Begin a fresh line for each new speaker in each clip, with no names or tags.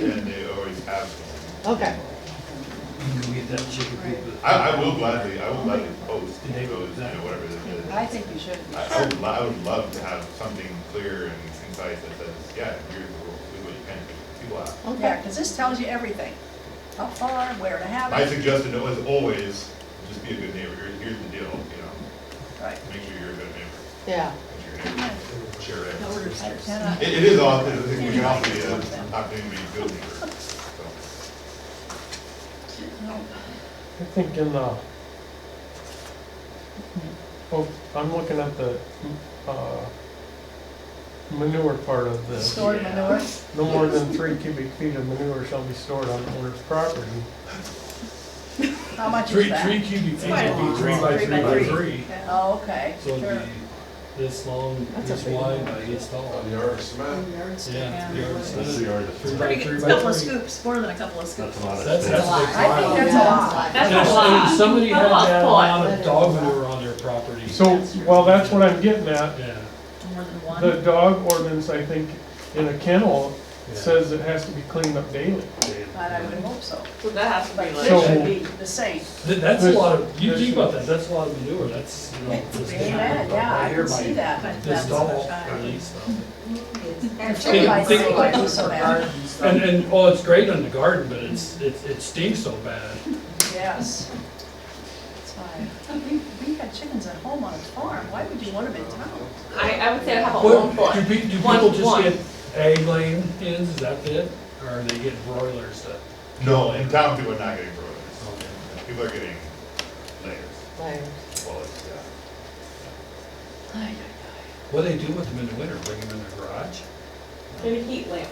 and they always have them.
Okay,
Go get that chicken coop.
I, I will gladly, I will gladly post
Did they-
those, you know, whatever it is.
I think you should.
I, I would, lo- I would love to have something clear and concise that says, yeah, here's the rule, do what you can, do. people ask.
Yeah,
Okay,
because this tells you everything, how far, where to have
My
it,
suggestion was always, just be a good neighbor, Here- here's the deal, you know,
right.
make sure you're a good neighbor,
yeah,
make sure your neighbor, share it.
I cannot-
It, it is often, I think we can often be, uh, an opportunity to be a good neighbor, so.
no.
I think in the, uh, oh, I'm looking at the, uh, manure part of this.
Stored
Yeah.
manure,
No more than three cubic feet of manure shall be stored on the owner's property.
how much is
Three,
that?
three cubic feet
quite a
would be
long
three by three by three.
Oh, okay,
So
sure.
it'd be this long,
That's a
this
big
wide,
one.
by this tall. Yeah.
Yeah.
That's the yard. Three by
Pretty
three
good,
by
couple of
three.
scoops, more than a couple of scoops.
That's a lot of
That's,
space.
that's
lot.
like.
I think that's a lot.
That's
If-
a
if
lot.
Somebody had
That's a lot.
that amount
That
of
is
dog
a lot.
manure on their property.
So, well, that's what I'm getting at.
Yeah.
More than one.
The dog ordinance, I think, in a kennel
yeah.
says it has to be cleaned up daily.
But I would hope so.
So that has to
But
be
it
like.
So-
should be the same.
Th- That's a lot of, you
There's-
think about that, that's a lot of manure, that's, you know.
It's
this-
really bad, yeah, I can see that.
This
That's
tall,
fine.
at least.
And
Think-
chicken bites,
think-
they like it so bad,
And, and, oh, it's great on the garden, but it's, it it stinks so bad.
yes. It's fine. We, we had chickens at home on a farm, why would you want them in town?
I, I would say I have a
Well,
one foot.
Do pe- do
One-
people
one.
just get egg laying hens, is that it? Or are they getting broilers that?
No, in town, people are not getting broilers, people are getting layers,
like,
well, it's, yeah.
What do they do with them in the winter, bring them in their garage?
Maybe heat lamp.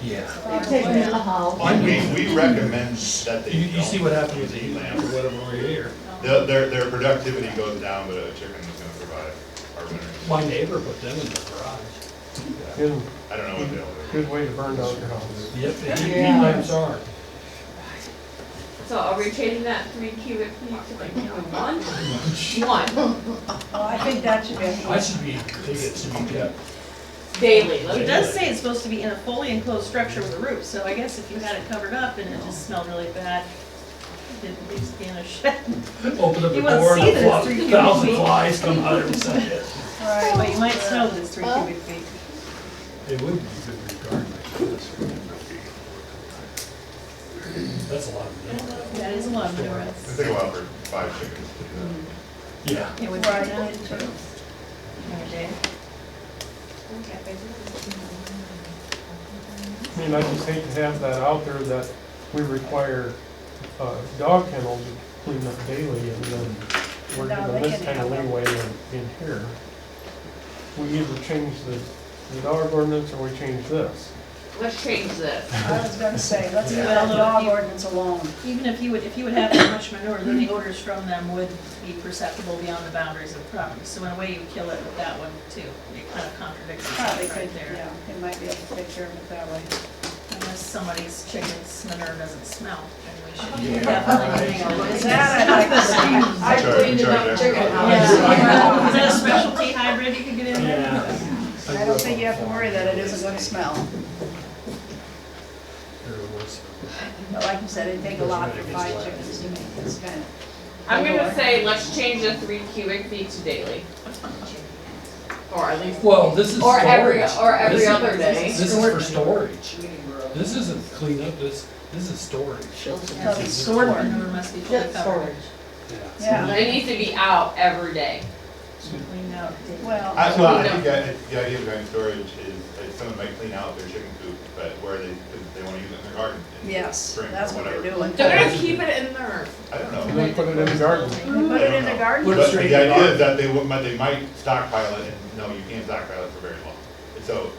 Yeah.
I'll take them in the house.
I mean, we recommend that they
You, you see
don't
what happened with
use
the
heat
heat lamp
lamps.
or whatever over here.
Their, their, their productivity goes down, but a chicken is gonna survive our winter.
My neighbor put them in the garage.
Good,
I don't know what they'll do.
good way to burn down your house.
Yep, the heat heat
Yeah.
lamps are.
So are we changing that three cubic feet to like, you know, one? One,
Oh, I think that should be,
I
a-
should be, they get to be kept.
daily,
Oh, It
like,
does say it's supposed to be in a fully enclosed structure with a roof, so I guess if you had it covered up and it just smelled really bad, it'd at least be in a shed.
Open up the
You won't
door
see that it's three
and a
cubic
thousand
feet.
flies come out of it.
all right.
But you might smell that it's three cubic feet.
It would be good regardless. That's a lot of manure.
That is a lot of manure.
It's gonna take a while for five chickens to do that.
Yeah.
It would be
Right,
that.
it too.
Another day.
I mean, I just hate to have that out there that we require, uh, dog kennels to clean up daily and then we're
No, they
given this
can
kind
have
of
that.
leeway in, in here. We either change the, the dog ordinance or we change this.
let's change this.
I was gonna say, let's leave
Yeah.
that dog ordinance alone.
Even if you would, if you would have that much manure, then the odors from them would be perceptible beyond the boundaries of the property. So in a way, you kill it with that one too. It kind of contradicts
Probably
itself
could,
right there.
yeah, it might be able to take care of it that way.
Unless somebody's chicken's manure doesn't smell, then we
Yeah.
should definitely hang on to it.
Is that, I like the
I cleaned enough chicken
Yeah. Is that a specialty hybrid you could get in there?
I don't think you have to worry that it isn't gonna smell. But like you said, it'd take a lot for five chickens to make this kind of.
I'm gonna say, let's change the three cubic feet to daily. Or at least,
Well, this is.
Or every-
storage.
or every
This is-
other day.
This is for storage. This isn't cleanup, this, this is storage.
Probably stored.
Stored manure must be fully
Just
covered.
storage.
Yeah,
it needs to be out every day.
Cleaned out.
well,
I, well, I think that, the idea of going storage is, that someone might clean out their chicken coop, but where they, because they wanna use it in their garden. in
yes,
spring or
that's what they're
whatever.
doing.
They're gonna keep it in their,
I don't know.
And then put it in the garden.
They Put it in the garden,
But
Put it
the
straight in the
idea
garden.
is that they would, might- they might stockpile it, and no, you can't stockpile it for very long. And so,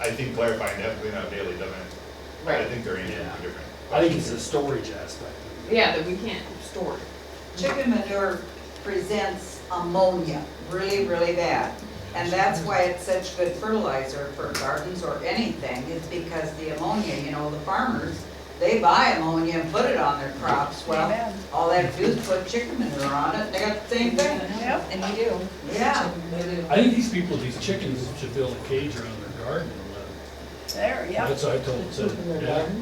I think clarifying that clean out daily doesn't, I
right,
think they're answering
Yeah.
two different.
I think it's the storage aspect.
yeah, that we can't store it.
Chicken manure presents ammonia really, really bad. And that's why it's such good fertilizer for gardens or anything, is because the ammonia, you know, the farmers, they buy ammonia and put it on their crops. Well,
Amen.
all they have to do is put chicken manure on it, they got the same thing.
yep,
And you do.
Yeah,
I think these people, these chickens should build a cage around their garden and let them.
there, yep.
That's what I told them,
Poop in the
yeah.
garden.